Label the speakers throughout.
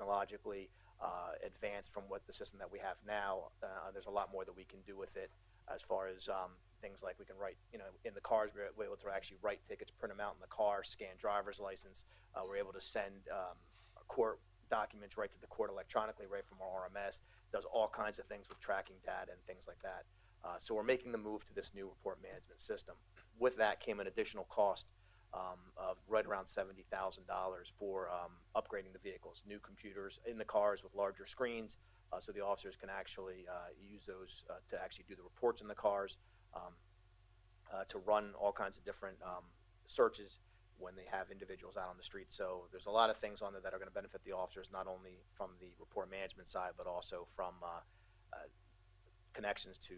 Speaker 1: technologically uh, advanced from what the system that we have now. Uh, there's a lot more that we can do with it as far as um, things like we can write, you know, in the cars, we're we're able to actually write tickets, print them out in the car, scan driver's license. Uh, we're able to send um, court documents right to the court electronically, right from our RMS. Does all kinds of things with tracking data and things like that. Uh, so we're making the move to this new report management system. With that came an additional cost um, of right around seventy thousand dollars for um, upgrading the vehicles, new computers in the cars with larger screens, uh, so the officers can actually uh, use those uh, to actually do the reports in the cars, um, uh, to run all kinds of different um, searches when they have individuals out on the street. So there's a lot of things on there that are going to benefit the officers, not only from the report management side, but also from uh, uh, connections to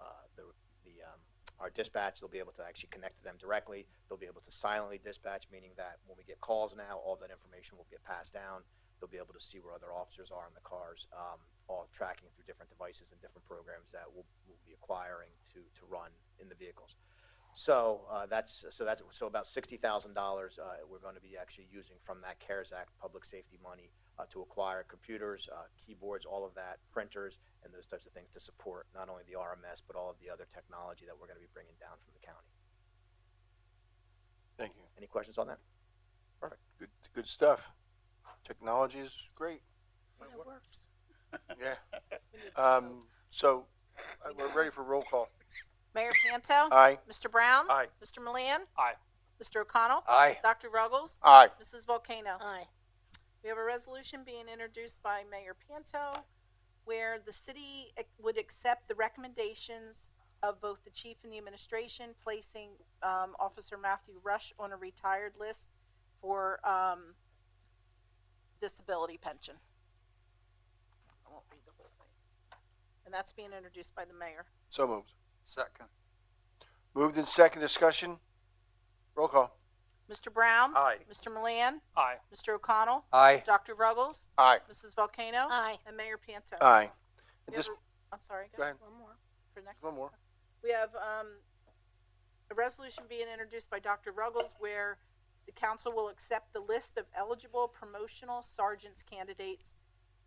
Speaker 1: uh, the, the um, our dispatch. They'll be able to actually connect to them directly. They'll be able to silently dispatch, meaning that when we get calls now, all that information will get passed down. They'll be able to see where other officers are in the cars, um, all tracking through different devices and different programs that we'll, we'll be acquiring to, to run in the vehicles. So uh, that's so that's so about sixty thousand uh, dollars we're going to be actually using from that CARES Act public safety money uh, to acquire computers, uh, keyboards, all of that, printers, and those types of things to support not only the RMS but all of the other technology that we're going to be bringing down from the county.
Speaker 2: Thank you.
Speaker 1: Any questions on that?
Speaker 2: Good, good stuff. Technology is great.
Speaker 3: When it works.
Speaker 2: Yeah. Um, so uh, we're ready for roll call.
Speaker 3: Mayor Panto?
Speaker 2: Aye.
Speaker 3: Mr. Brown?
Speaker 2: Aye.
Speaker 3: Mr. Milan?
Speaker 2: Aye.
Speaker 3: Mr. O'Connell?
Speaker 2: Aye.
Speaker 3: Dr. Ruggles?
Speaker 2: Aye.
Speaker 3: Mrs. Volcano?
Speaker 4: Aye.
Speaker 3: We have a resolution being introduced by Mayor Panto where the city ac- would accept the recommendations of both the chief and the administration, placing um, Officer Matthew Rush on a retired list for um, disability pension. I won't read the whole thing. And that's being introduced by the mayor.
Speaker 2: So moved.
Speaker 5: Second.
Speaker 2: Moved in second discussion. Roll call.
Speaker 3: Mr. Brown?
Speaker 5: Aye.
Speaker 3: Mr. Milan?
Speaker 5: Aye.
Speaker 3: Mr. O'Connell?
Speaker 2: Aye.
Speaker 3: Dr. Ruggles?
Speaker 2: Aye.
Speaker 3: Mrs. Volcano?
Speaker 4: Aye.
Speaker 3: And Mayor Panto?
Speaker 2: Aye.
Speaker 3: We
Speaker 2: And
Speaker 3: have
Speaker 2: this,
Speaker 3: a- I'm sorry, go
Speaker 2: go
Speaker 3: ahead
Speaker 2: ahead.
Speaker 4: One more.
Speaker 3: for next.
Speaker 2: One more.
Speaker 3: We have um, a resolution being introduced by Dr. Ruggles where the council will accept the list of eligible promotional sergeants candidates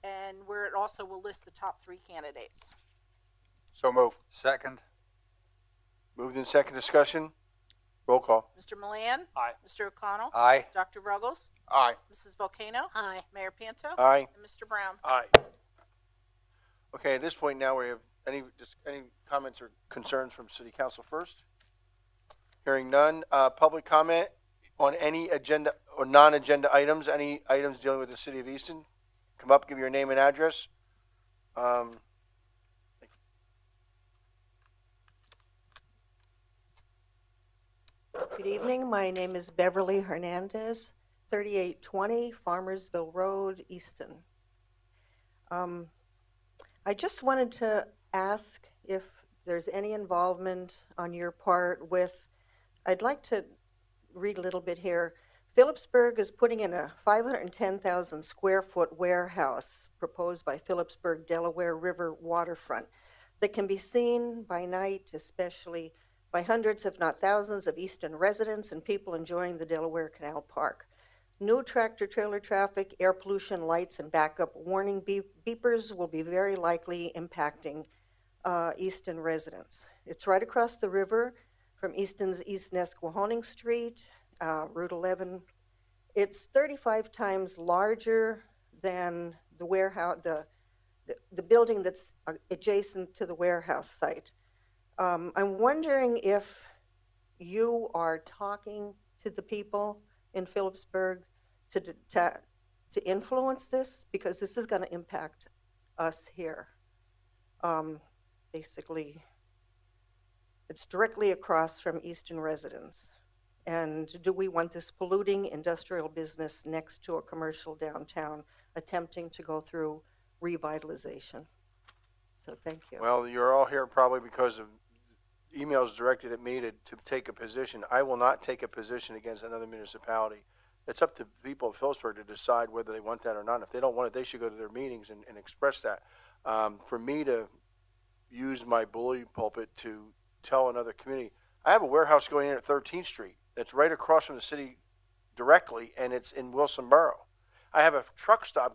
Speaker 3: and where it also will list the top three candidates.
Speaker 2: So moved.
Speaker 5: Second.
Speaker 2: Moved in second discussion. Roll call.
Speaker 3: Mr. Milan?
Speaker 5: Aye.
Speaker 3: Mr. O'Connell?
Speaker 2: Aye.
Speaker 3: Dr. Ruggles?
Speaker 2: Aye.
Speaker 3: Mrs. Volcano?
Speaker 4: Aye.
Speaker 3: Mayor Panto?
Speaker 2: Aye.
Speaker 3: And Mr. Brown?
Speaker 2: Aye. Okay, at this point now, we have any, just any comments or concerns from city council first? Hearing none, uh, public comment on any agenda or non-agenda items, any items dealing with the city of Easton? Come up, give your name and address. Um,
Speaker 6: Good evening, my name is Beverly Hernandez, 3820 Farmersville Road, Easton. Um, I just wanted to ask if there's any involvement on your part with, I'd like to read a little bit here. Phillipsburg is putting in a 510,000 square foot warehouse proposed by Phillipsburg Delaware River waterfront that can be seen by night, especially by hundreds, if not thousands, of Easton residents and people enjoying the Delaware Canal Park. New tractor trailer traffic, air pollution lights, and backup warning beep- beepers will be very likely impacting uh, Easton residents. It's right across the river from Easton's East Nesquahoning Street, uh, Route 11. It's 35 times larger than the warehouse, the, the, the building that's uh, adjacent to the warehouse site. Um, I'm wondering if you are talking to the people in Phillipsburg to, d- to, to influence this, because this is gonna impact us here. Um, basically, it's directly across from Eastern residents. And do we want this polluting industrial business next to a commercial downtown attempting to go through revitalization? So thank you.
Speaker 2: well, you're all here probably because of emails directed at me to, to take a position. I will not take a position against another municipality. It's up to people of Phillipsburg to decide whether they want that or not. If they don't want it, they should go to their meetings and, and express that. Um, for me to use my bully pulpit to tell another community, I have a warehouse going in at 13th Street that's right across from the city directly, and it's in Wilson Borough. I have a truck stop